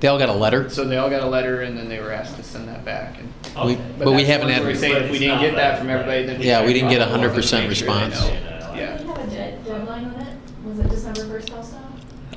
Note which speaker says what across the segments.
Speaker 1: They all got a letter.
Speaker 2: So they all got a letter and then they were asked to send that back. And,
Speaker 1: We-
Speaker 3: Okay.
Speaker 1: But we
Speaker 2: that's
Speaker 1: haven't
Speaker 2: the
Speaker 1: had-
Speaker 2: one where we say
Speaker 3: But
Speaker 2: if we
Speaker 3: it's
Speaker 2: didn't
Speaker 3: not
Speaker 2: get that
Speaker 3: that
Speaker 2: from everybody, then.
Speaker 1: Yeah, we didn't get a
Speaker 2: follow up and
Speaker 1: 100%
Speaker 2: make sure they know.
Speaker 1: response.
Speaker 3: Yeah.
Speaker 2: Yeah.
Speaker 4: Did you have a de- deadline on it? Was it December first also?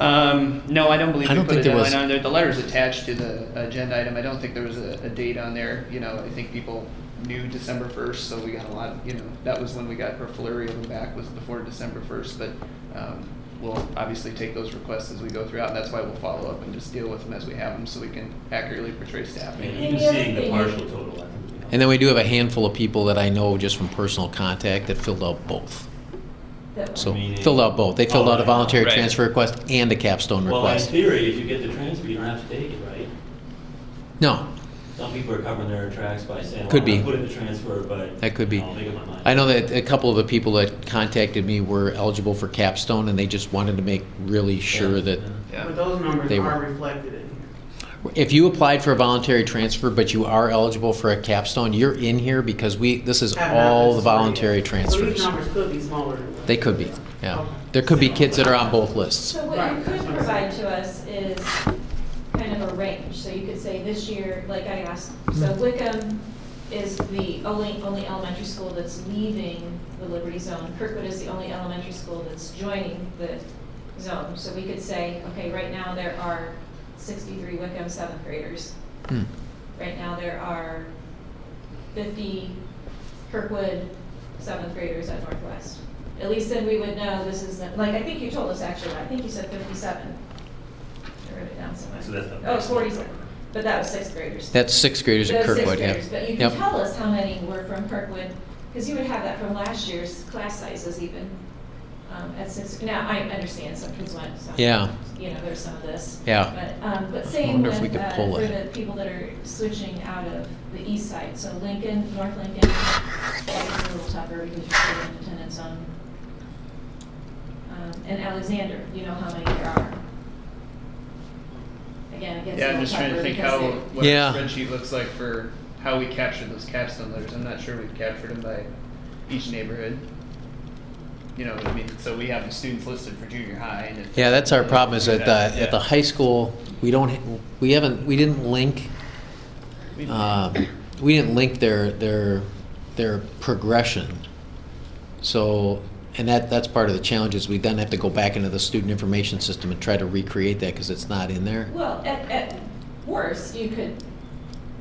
Speaker 2: Um, no, I don't believe
Speaker 1: I
Speaker 2: we
Speaker 1: don't
Speaker 2: put a
Speaker 1: think there was-
Speaker 2: deadline on there. The letter's attached to the agenda item. I don't think there was a, a date on there. You know, I think people knew December first, so we got a lot, of- you know, that was when we got our flurry of them back was before December first, but, um, we'll obviously take those requests as we go throughout, and that's why we'll follow up and just deal with them as we have them, so we can accurately portray staffing.
Speaker 3: And even seeing the partial total, I think would be helpful.
Speaker 1: And then we do have a handful of people that I know just from personal contact that filled out both.
Speaker 4: That one?
Speaker 1: So
Speaker 3: Meaning-
Speaker 1: filled out both. They filled out a voluntary
Speaker 2: Right.
Speaker 1: transfer request and a capstone
Speaker 3: Oh, Well, in
Speaker 1: request.
Speaker 3: theory, if you get the transfer, you don't have to take it, right?
Speaker 1: No,
Speaker 3: Some people are covering their tracks by saying, well,
Speaker 1: Could
Speaker 3: I'm
Speaker 1: be.
Speaker 3: gonna put in the transfer, but.
Speaker 1: That could be.
Speaker 3: I'll make up my mind.
Speaker 1: I know that a couple of the people that contacted me were eligible for capstone and they just wanted to make really sure
Speaker 3: Yeah,
Speaker 1: that
Speaker 3: yeah.
Speaker 2: Yeah.
Speaker 5: But those numbers
Speaker 1: They
Speaker 5: are
Speaker 1: were.
Speaker 5: reflected in here.
Speaker 1: If you applied for a voluntary transfer, but you are eligible for a capstone, you're in here because we, this is
Speaker 5: Have not
Speaker 1: all
Speaker 5: been
Speaker 1: the
Speaker 5: sorted
Speaker 1: voluntary
Speaker 5: yet. So these
Speaker 1: transfers.
Speaker 5: numbers could be smaller than what-
Speaker 1: They could be, yeah. There could be kids that are on both lists.
Speaker 4: So what you could provide to us is kind of a range, so you could say this year, like I asked, so Wickham is the only, only elementary school that's leaving the Liberty Zone, Kirkwood is the only elementary school that's joining the zone, so we could say, okay, right now there are sixty-three Wickham seventh graders,
Speaker 1: Hmm.
Speaker 4: right now there are fifty Kirkwood seventh graders at Northwest. At least then we would know this is, like, I think you told us actually, I think you said fifty-seven. I wrote it down somewhere.
Speaker 3: So that's not-
Speaker 4: Oh, it's forty-seven, but that was sixth graders.
Speaker 1: That's sixth graders at
Speaker 4: Those sixth
Speaker 1: Kirkwood, yeah.
Speaker 4: graders, But you
Speaker 1: Yep.
Speaker 4: can tell us how many were from Kirkwood, because you would have that from last year's class sizes even, um, at six, now, I understand some kids went, some.
Speaker 1: Yeah.
Speaker 4: You know, there's some of this.
Speaker 1: Yeah.
Speaker 4: But, um, but
Speaker 1: I
Speaker 4: same
Speaker 1: wonder
Speaker 4: with,
Speaker 1: if we could
Speaker 4: uh,
Speaker 1: pull
Speaker 4: for
Speaker 1: it.
Speaker 4: the people that are switching out of the east side, so Lincoln, North Lincoln, that's a little tougher because you're still in attendance on. Um, and Alexander, you know how many there are. Again, it gets
Speaker 2: Yeah,
Speaker 4: a
Speaker 2: I'm
Speaker 4: little
Speaker 2: just trying
Speaker 4: tougher
Speaker 2: to think
Speaker 4: because
Speaker 2: how,
Speaker 4: they-
Speaker 2: what
Speaker 1: Yeah.
Speaker 2: our spreadsheet looks like for how we capture those capstone letters. I'm not sure we've captured them by each neighborhood. You know, what I mean, so we have the students listed for junior high and. if-
Speaker 1: Yeah, that's our problem is
Speaker 2: Yeah,
Speaker 1: at the, at the
Speaker 2: yeah.
Speaker 1: high school, we don't, we haven't, we didn't link,
Speaker 2: We-
Speaker 1: um, we didn't link their, their, their progression. So, and that, that's part of the challenge is we then have to go back into the student information system and try to recreate that because it's not in there.
Speaker 4: Well, at, at worst, you could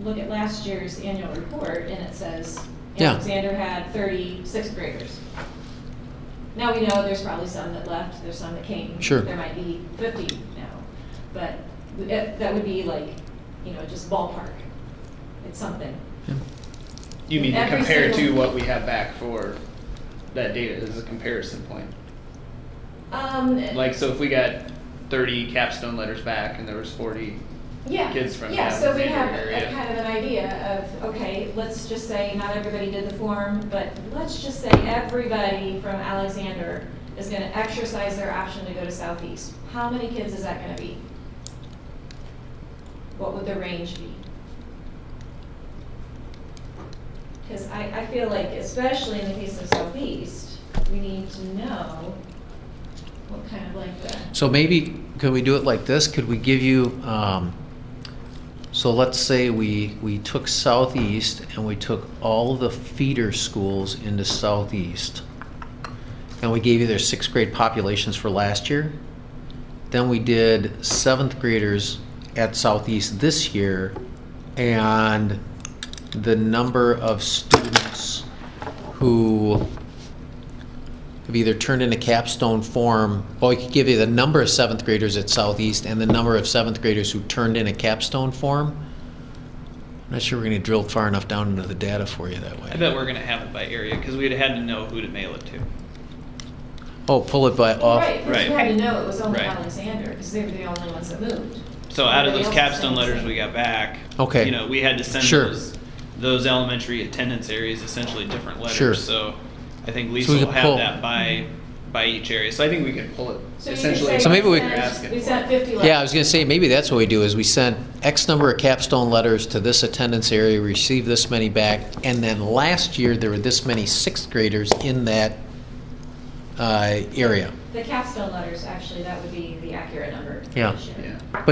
Speaker 4: look at last year's annual report and it says
Speaker 1: Yeah.
Speaker 4: Alexander had thirty sixth graders. Now we know there's probably some that left, there's some that came.
Speaker 1: Sure.
Speaker 4: There might be fifty now, but it- that would be like, you know, just ballpark. It's something.
Speaker 2: You mean to
Speaker 4: every
Speaker 2: compare to
Speaker 4: single-
Speaker 2: what we have back for that data as a comparison point?
Speaker 4: Um,
Speaker 2: Like, so if we got thirty capstone letters back and there was forty,
Speaker 4: Yeah.
Speaker 2: kids from
Speaker 4: Yeah,
Speaker 2: that
Speaker 4: so we
Speaker 2: particular
Speaker 4: have a-
Speaker 2: area.
Speaker 4: a kind of an idea of, okay, let's just say not everybody did the form, but let's just say everybody from Alexander is gonna exercise their option to go to Southeast. How many kids is that gonna be? What would the range be? Because I, I feel like, especially in the case of Southeast, we need to know what kind of like the.
Speaker 1: So maybe, could we do it like this? Could we give you, um, so let's say we, we took southeast and we took all the feeder schools into southeast. And we gave you their sixth grade populations for last year. Then we did seventh graders at southeast this year and the number of students who have either turned in a capstone form, well, I could give you the number of seventh graders at Southeast and the number of seventh graders who turned in a capstone form. I'm not sure we're gonna drill far enough down into the data for you that way.
Speaker 6: I bet we're gonna have it by area, because we'd had to know who to mail it to.
Speaker 1: Oh, pull it by off.
Speaker 4: Right, because you
Speaker 6: Right.
Speaker 4: had to know it was only
Speaker 6: Right.
Speaker 4: Alexander, because they were the only ones that moved.
Speaker 6: So out of
Speaker 4: Everybody
Speaker 6: those
Speaker 4: else is
Speaker 6: capstone
Speaker 4: saying the
Speaker 6: letters
Speaker 4: same.
Speaker 6: we got back,
Speaker 1: Okay.
Speaker 6: you know, we had to send
Speaker 1: Sure.
Speaker 6: those, those elementary attendance areas essentially different
Speaker 1: Sure.
Speaker 6: letters, so I think
Speaker 1: we
Speaker 6: Lisa will
Speaker 1: could pull.
Speaker 6: have that by, by each area, so I think we could
Speaker 2: pull it
Speaker 4: So you could
Speaker 2: essentially.
Speaker 4: say.
Speaker 1: So maybe we-
Speaker 4: sent-
Speaker 2: Asking
Speaker 4: We
Speaker 2: for
Speaker 4: sent
Speaker 2: it.
Speaker 4: fifty letters.
Speaker 1: Yeah, I was gonna say, maybe that's what we do, is we send X number of capstone letters to this attendance area, receive this many back, and then last year, there were this many sixth graders in that, uh, area.
Speaker 4: The capstone letters, actually, that would be the accurate number. for
Speaker 1: Yeah.
Speaker 4: this year.
Speaker 2: Yeah.